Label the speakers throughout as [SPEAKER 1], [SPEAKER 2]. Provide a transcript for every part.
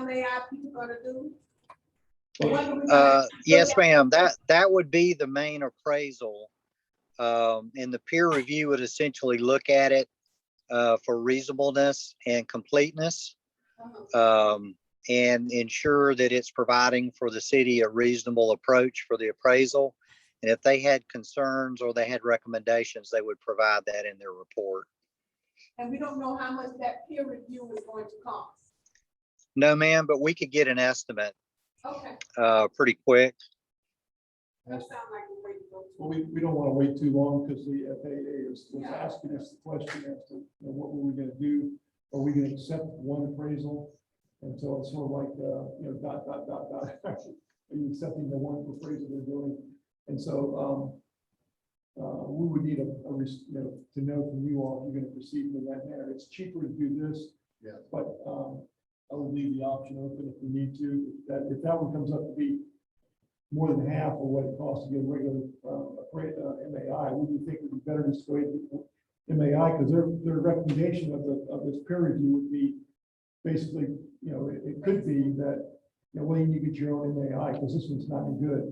[SPEAKER 1] MAI people gonna do?
[SPEAKER 2] Uh, Yes, ma'am. That, that would be the main appraisal. Um, And the peer review would essentially look at it uh, for reasonableness and completeness um, and ensure that it's providing for the city a reasonable approach for the appraisal. And if they had concerns or they had recommendations, they would provide that in their report.
[SPEAKER 1] And we don't know how much that peer review is going to cost.
[SPEAKER 2] No, ma'am, but we could get an estimate
[SPEAKER 1] Okay,
[SPEAKER 2] uh, pretty quick.
[SPEAKER 1] that
[SPEAKER 3] That's-
[SPEAKER 1] sounds like a way to go.
[SPEAKER 3] Well, we, we don't want to wait too long because the FAA is, was
[SPEAKER 1] Yeah.
[SPEAKER 3] asking us the question as to, you know, what were we going to do? Are we going to accept one appraisal? And so it's sort of like, uh, you know, dot, dot, dot, dot. Are you accepting the one appraisal they're doing? And so, um, uh, we would need a, a, res- you know, to know from you all if you're going to proceed in that manner. It's cheaper to do this.
[SPEAKER 4] Yeah.
[SPEAKER 3] But, um, I would leave the option open if we need to. If That, if that one comes up to be more than half of what it costs to get a regular, um, appra- uh, MAI, we would think it'd be better to sway the MAI, because their, their recommendation of the, of this peer review would be basically, you know, it, it could be that, you know, well, you need to get your own MAI, because this one's not any good.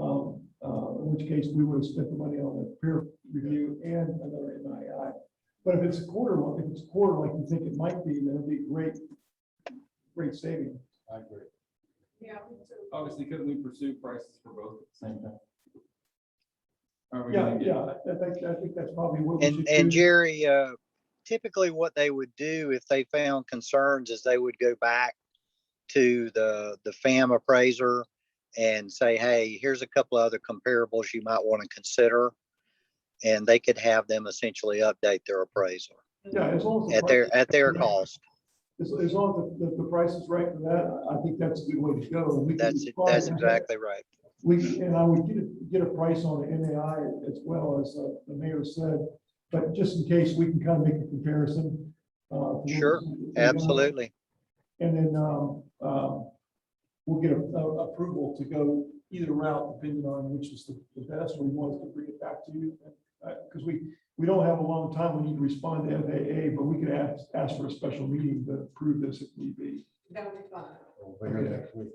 [SPEAKER 3] Um, uh, in which case, we would have spent the money on the peer review and another MAI. But if it's a quarter, if it's a quarter like you think it might be, then it'd be great, great saving.
[SPEAKER 4] I agree.
[SPEAKER 1] Yeah, me too.
[SPEAKER 5] Obviously, couldn't we pursue prices for both at the same time? Are we
[SPEAKER 3] Yeah,
[SPEAKER 5] gonna get,
[SPEAKER 3] yeah, I think, I think that's probably what we should
[SPEAKER 2] And,
[SPEAKER 3] do.
[SPEAKER 2] and Jerry, uh, typically what they would do if they found concerns is they would go back to the, the FAM appraiser and say, hey, here's a couple other comparables you might want to consider. And they could have them essentially update their appraisal
[SPEAKER 3] Yeah, as long as. the
[SPEAKER 2] at
[SPEAKER 3] price-
[SPEAKER 2] their, at their
[SPEAKER 3] Yeah.
[SPEAKER 2] cost.
[SPEAKER 3] As, as long as the, the- the price is right for that, I I think that's a good way to go. We can
[SPEAKER 2] That's,
[SPEAKER 3] respond
[SPEAKER 2] that's
[SPEAKER 3] to that.
[SPEAKER 2] exactly right.
[SPEAKER 3] We, and I would get, a- get a price on the NAI as well as uh, the mayor said, but just in case, we can kind of make a comparison. uh, to
[SPEAKER 2] Sure,
[SPEAKER 3] what we-
[SPEAKER 2] Absolutely.
[SPEAKER 3] And then, um, um, we'll get a, a- approval to go either route depending on which is the the best, or we want to bring it back to you. Uh, cause we, we don't have a long time, we need to respond to FAA, but we could ask, ask for a special meeting to approve this if need be.
[SPEAKER 1] That'll be fine.
[SPEAKER 4] We'll figure it next week.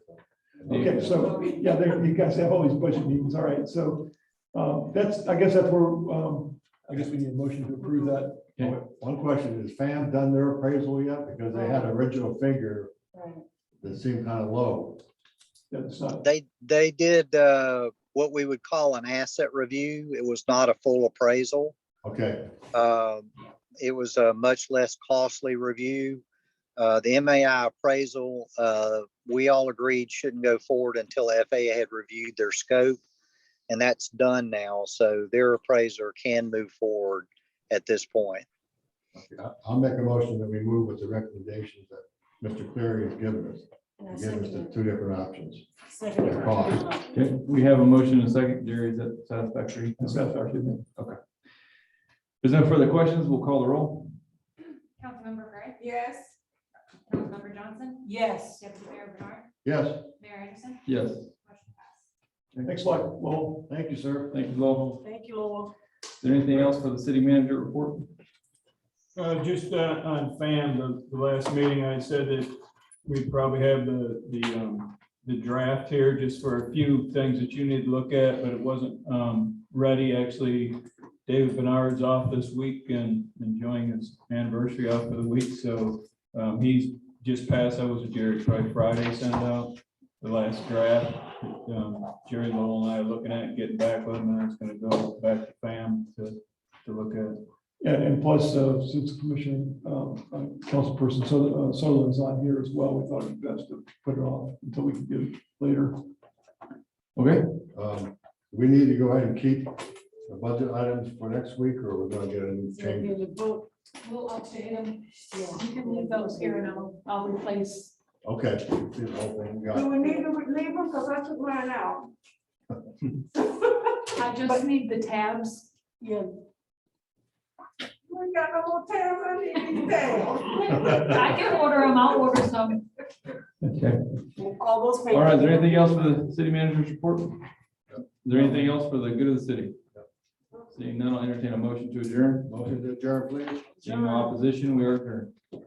[SPEAKER 3] Okay, so, yeah, there, you guys have all these budget meetings, all right, so, um, that's, I guess that's where, um, I guess we need a motion to approve that.
[SPEAKER 5] Yeah.
[SPEAKER 4] One question, is FAM done their appraisal yet? Because they had an original figure that seemed kind of low.
[SPEAKER 3] That's not,
[SPEAKER 2] They, they did, uh, what we would call an asset review. It was not a full appraisal.
[SPEAKER 4] Okay,
[SPEAKER 2] Um, It was a much less costly review. Uh, The MAI appraisal, uh, we all agreed shouldn't go forward until FAA had reviewed their scope. And that's done now, so their appraiser can move forward at this point.
[SPEAKER 4] I- I'll make a motion that we move with the recommendations that Mr. Cleary has given us.
[SPEAKER 6] And I
[SPEAKER 4] He's Given us the
[SPEAKER 6] second
[SPEAKER 4] two different options.
[SPEAKER 6] it. Second
[SPEAKER 4] their cost.
[SPEAKER 6] it.
[SPEAKER 5] Okay, we have a motion and a second. Jerry, is that satisfactory?
[SPEAKER 3] that's not our thing.
[SPEAKER 5] Is there further questions? We'll call the roll.
[SPEAKER 6] Councilmember Gray,
[SPEAKER 1] Yes?
[SPEAKER 6] Councilmember Johnson,
[SPEAKER 1] Yes.
[SPEAKER 6] Deputy Mayor Bernard,
[SPEAKER 4] Yes,
[SPEAKER 6] Mayor Anderson.
[SPEAKER 5] Yes,
[SPEAKER 6] Motion passed.
[SPEAKER 3] Thanks a lot, well,
[SPEAKER 4] thank you, sir.
[SPEAKER 5] thank you, Lowell.
[SPEAKER 1] Thank you, Lord.
[SPEAKER 5] Is there anything else for the city manager report?
[SPEAKER 7] Uh, just uh, on FAM, the, the last meeting, I said that we'd probably have the, the, um, the draft here just for a few things that you need to look at, but it wasn't, um, ready. Actually, David Bernard's off this week and enjoying his anniversary off for the week, so, um, he's just passed, I was at Jerry probably Friday, sent out the last draft. Um, Jerry Lowell and I are looking at getting back with him, and I was gonna go back to FAM to, to look at.
[SPEAKER 3] and, and plus, uh, since Commission, um, uh, Councilperson Suther- uh, Sutherland's on here as well, we thought it'd be best to put it off until we can get it later.
[SPEAKER 5] Okay,
[SPEAKER 4] Um, We need to go ahead and keep the budget items for next week, or we're gonna get a new change.
[SPEAKER 8] We'll update them. You can leave those here and I'll, I'll replace.
[SPEAKER 4] Okay. see the whole thing,
[SPEAKER 1] Do
[SPEAKER 4] got
[SPEAKER 1] we need to leave them? Cause I took mine out.
[SPEAKER 8] I just need the tabs. Yeah.
[SPEAKER 1] We ain't got no more tabs I need these tabs.
[SPEAKER 8] I can order them. I'll order some.
[SPEAKER 5] okay.
[SPEAKER 8] All those.
[SPEAKER 5] All right, is there anything else for the city manager's report? Is there anything else for the good of the city? Seeing none, I'll entertain a motion to adjourn.
[SPEAKER 4] it. Motion to adjourn, please.
[SPEAKER 5] Seeing no opposition, we are adjourned.